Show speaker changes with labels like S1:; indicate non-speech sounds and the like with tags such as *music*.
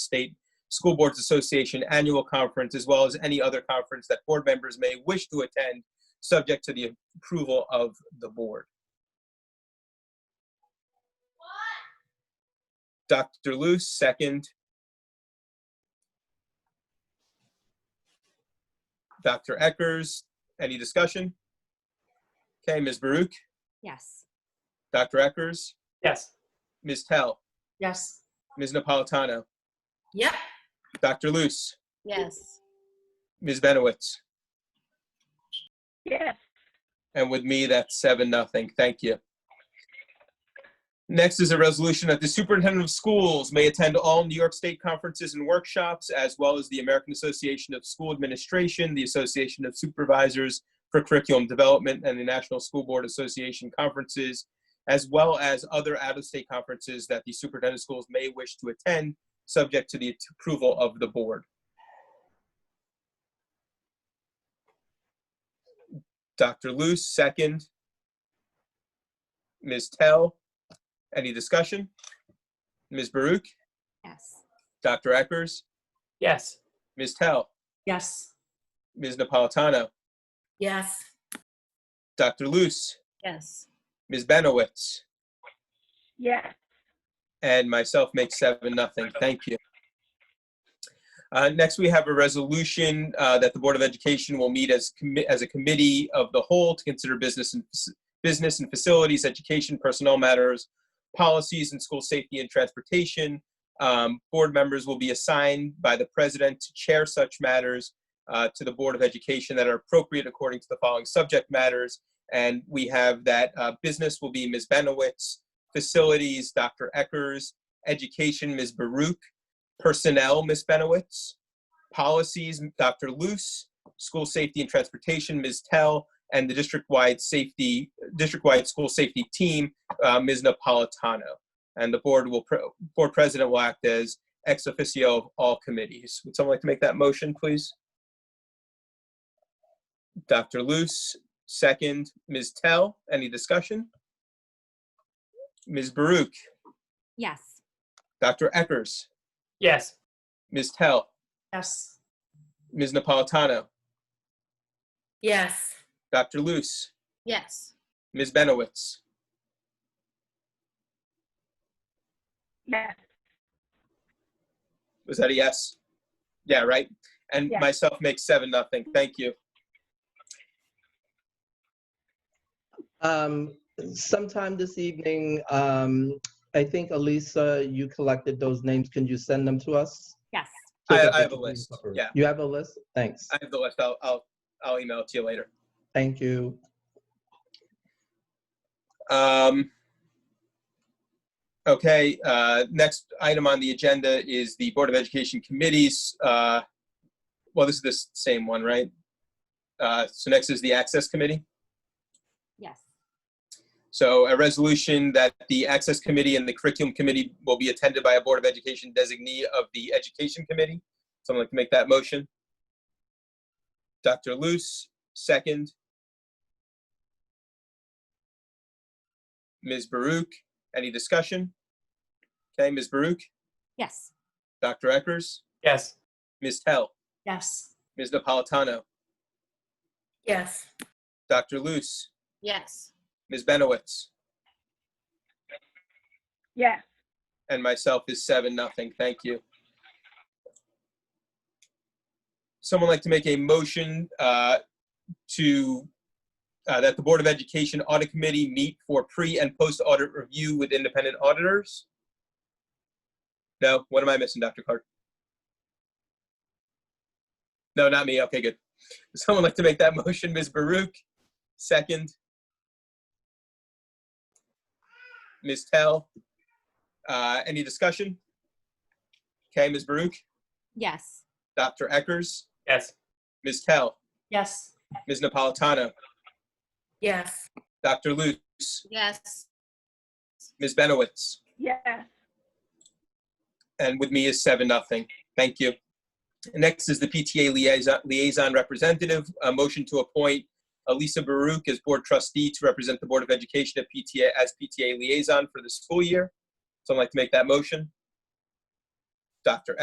S1: State School Boards Association Annual Conference, as well as any other conference that board members may wish to attend, subject to the approval of the board. Dr. Luce, second. Dr. Eckers, any discussion? Okay, Ms. Baruch,
S2: Yes.
S1: Dr. Eckers,
S3: Yes.
S1: Ms. Tell,
S4: Yes.
S1: Ms. Napolitano,
S4: Yep.
S1: Dr. Luce,
S2: Yes.
S1: Ms. Benowitz.
S5: yes,
S1: And with me, that's seven, nothing. Thank you. Next is a resolution that the superintendent of schools may attend all New York State conferences and workshops, as well as the American Association of School Administration, the Association of Supervisors for Curriculum Development, and the National School Board Association conferences, as well as other out-of-state conferences that the superintendent of schools may wish to attend, subject to the approval of the board. Dr. Luce, second. Ms. Tell, any discussion? Ms. Baruch,
S2: Yes.
S1: Dr. Eckers,
S3: Yes.
S1: Ms. Tell,
S4: Yes.
S1: Ms. Napolitano,
S4: Yes.
S1: Dr. Luce,
S2: Yes.
S1: Ms. Benowitz,
S5: yes,
S1: and myself makes seven, nothing. Thank you. Uh, Next, we have a resolution uh, that the Board of Education will meet as, commi- as a committee of the whole to consider business and, business and facilities, education, personnel matters, policies, and school safety and transportation. Um, Board members will be assigned by the president to chair such matters uh, to the Board of Education that are appropriate according to the following subject matters. And we have that uh, business will be Ms. Benowitz, facilities, Dr. Eckers, education, Ms. Baruch, personnel, Ms. Benowitz, policies, Dr. Luce, school safety and transportation, Ms. Tell, and the district-wide safety, district-wide school safety team, uh, Ms. Napolitano. And the board will, pro- board president will act as ex officio of all committees. Would someone like to make that motion, please? Dr. Luce, second. Ms. Tell, any discussion? Ms. Baruch,
S2: Yes.
S1: Dr. Eckers,
S3: Yes.
S1: Ms. Tell,
S4: Yes.
S1: Ms. Napolitano,
S4: Yes.
S1: Dr. Luce,
S2: Yes.
S1: Ms. Benowitz,
S5: yes,
S1: Was that a yes? Yeah, right? And
S5: Yes.
S1: myself makes seven, nothing. Thank you.
S6: Um, sometime this evening, um, I think Elisa, you collected those names. Can you send them to us?
S2: Yes.
S6: So
S1: I-
S6: that
S1: I
S6: we
S1: have a
S6: can
S1: list,
S6: cover it.
S1: yeah.
S6: You have a list? Thanks.
S1: I have the list. I'll, I'll, I'll email it to you later.
S6: Thank you.
S1: Um, okay, uh, next item on the agenda is the Board of Education committees. Uh, well, this is the s- same one, right? Uh, so next is the Access Committee.
S2: Yes.
S1: So a resolution that the Access Committee and the Curriculum Committee will be attended by a Board of Education designee of the Education Committee. Someone like to make that motion? Dr. Luce, second. Ms. Baruch, any discussion? Okay, Ms. Baruch,
S2: Yes.
S1: Dr. Eckers,
S3: Yes.
S1: Ms. Tell,
S4: Yes.
S1: Ms. Napolitano,
S4: Yes.
S1: Dr. Luce,
S2: Yes.
S1: Ms. Benowitz,
S5: yes,
S1: and myself is seven, nothing. Thank you. Someone like to make a motion uh, to, uh, that the Board of Education Audit Committee meet for pre and post audit review with independent auditors? No, what am I missing, Dr. Clark? No, not me. Okay, good. Someone like to make that *laughs* motion, Ms. Baruch? Second? Ms. Tell? Uh, Any discussion? Okay, Ms. Baruch,
S2: Yes.
S1: Dr. Eckers,
S3: Yes.
S1: Ms. Tell,
S4: Yes.
S1: Ms. Napolitano,
S4: Yes.
S1: Dr. Luce,
S2: Yes.
S1: Ms. Benowitz,
S5: yes,
S1: and with me is seven, nothing. Thank you. Next is the PTA liaison, liaison representative, a motion to appoint Elisa Baruch as board trustee to represent the Board of Education at PTA, as PTA liaison for the school year. Someone like to make that motion? Dr.